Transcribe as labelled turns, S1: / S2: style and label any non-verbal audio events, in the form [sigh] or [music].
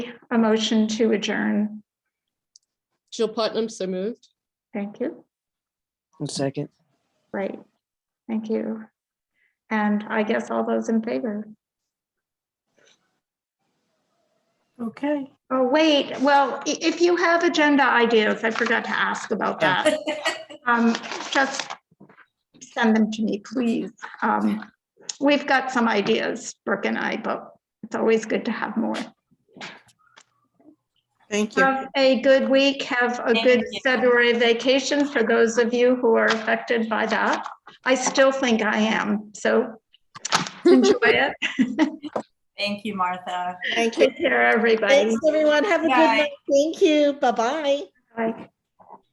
S1: a motion to adjourn.
S2: Jill Putnam, so moved.
S1: Thank you.
S3: One second.
S1: Great. Thank you. And I guess all those in favor?
S4: Okay.
S1: Oh, wait, well, i- if you have agenda ideas, I forgot to ask about that. Um, just send them to me, please. Um, we've got some ideas, Brooke and I, but it's always good to have more.
S5: Thank you.
S1: Have a good week. Have a good February vacation for those of you who are affected by that. I still think I
S5: [laughs]
S1: am, so enjoy it.
S4: Thank you, Martha.
S5: Thank you.
S1: Take care, everybody.
S5: Thanks, everyone. Have a good
S4: Bye.
S5: night. Thank you. Bye-bye.
S1: Bye.